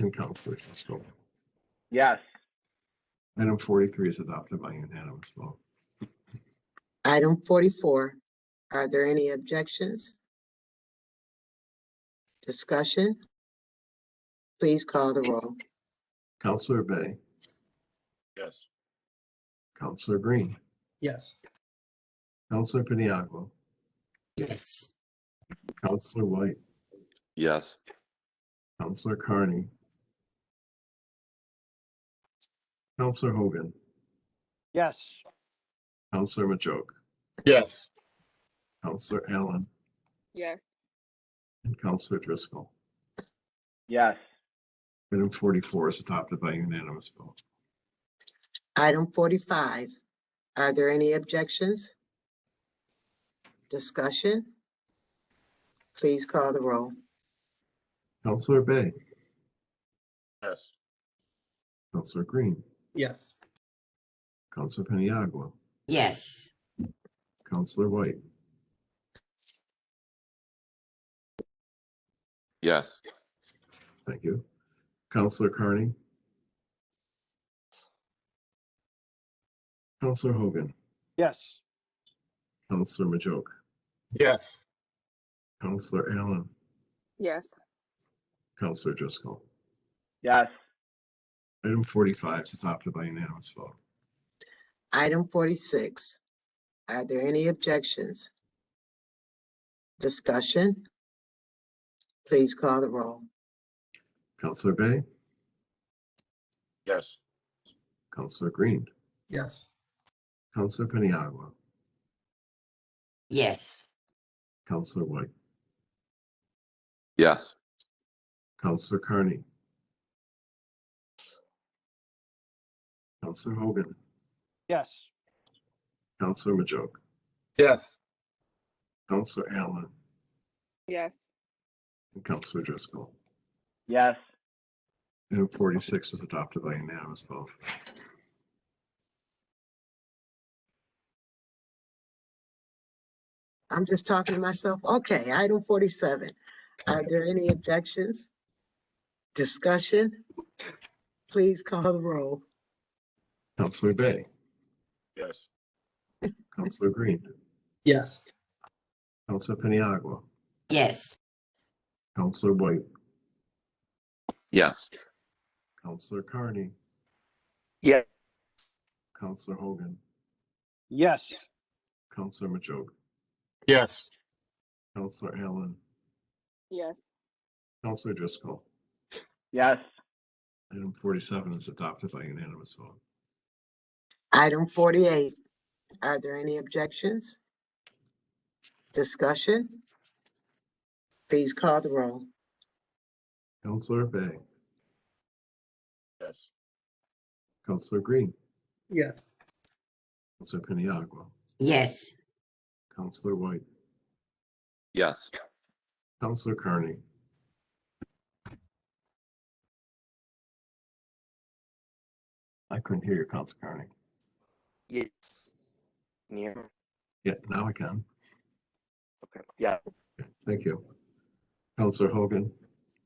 in conflict. Let's go. Yes. Item forty-three is adopted by unanimous vote. Item forty-four, are there any objections? Discussion? Please call the roll. Counselor Bay, Yes. Counselor Green, Yes. Counselor Piniagua, yes, Counselor White, Yes. Counselor Carney, Counselor Hogan, Yes. Counselor Majoke, Yes. Counselor Allen, yes, and Counselor Driscoll. Yes. Item forty-four is adopted by unanimous vote. Item forty-five, are there any objections? Discussion? Please call the roll. Counselor Bay, Yes. Counselor Green, Yes. Counselor Piniagua, yes, Counselor White, Yes. thank you, Counselor Carney, Counselor Hogan, Yes. Counselor Majoke, Yes. Counselor Allen, yes, Counselor Driscoll. Yes. Item forty-five is adopted by unanimous vote. Item forty-six, are there any objections? Discussion? Please call the roll. Counselor Bay, Yes. Counselor Green, Yes. Counselor Paniagua, yes, Counselor White, Yes. Counselor Carney, Counselor Hogan, Yes. Counselor Majoke, Yes. Counselor Allen, yes, and Counselor Driscoll. Yes. Item forty-six is adopted by unanimous vote. I'm just talking to myself. Okay, item forty-seven. Are there any objections? Discussion? Please call the roll. Counselor Bay, Yes. Counselor Green, Yes. Counselor Paniagua, yes, Counselor White, Yes. Counselor Carney, Yes. Counselor Hogan, Yes. Counselor Majoke, Yes. Counselor Allen, yes, Counselor Driscoll. Yes. Item forty-seven is adopted by unanimous vote. Item forty-eight. Are there any objections? Discussion? Please call the roll. Counselor Bay, Yes. Counselor Green, Yes. Counselor Piniagua, yes, Counselor White, Yes. Counselor Carney, I couldn't hear you, Counselor Carney. Yes. Near. Yeah, now I can. Okay. Yeah. Thank you. Counselor Hogan,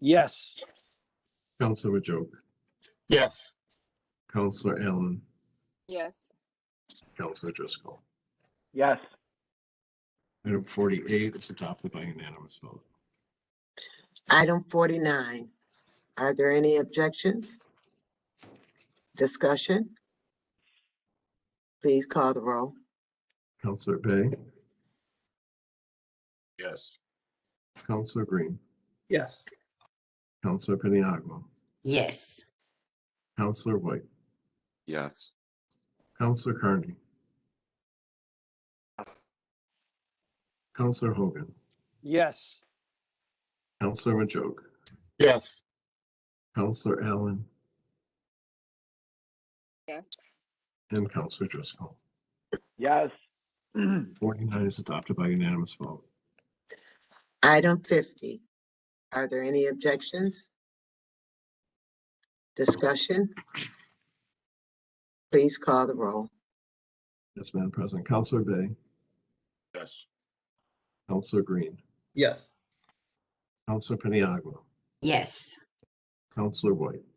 Yes. Counselor Majoke, Yes. Counselor Allen, yes, Counselor Driscoll. Yes. Item forty-eight is adopted by unanimous vote. Item forty-nine. Are there any objections? Discussion? Please call the roll. Counselor Bay, Yes. Counselor Green, Yes. Counselor Piniagua, yes, Counselor White, Yes. Counselor Carney. Counselor Hogan, Yes. Counselor Majoke, Yes. Counselor Allen, yes, and Counselor Driscoll. Yes. Forty-nine is adopted by unanimous vote. Item fifty. Are there any objections? Discussion? Please call the roll. Yes, Madam President, Counselor Bay, Yes. Counselor Green, Yes. Counselor Paniagua, yes, Counselor White.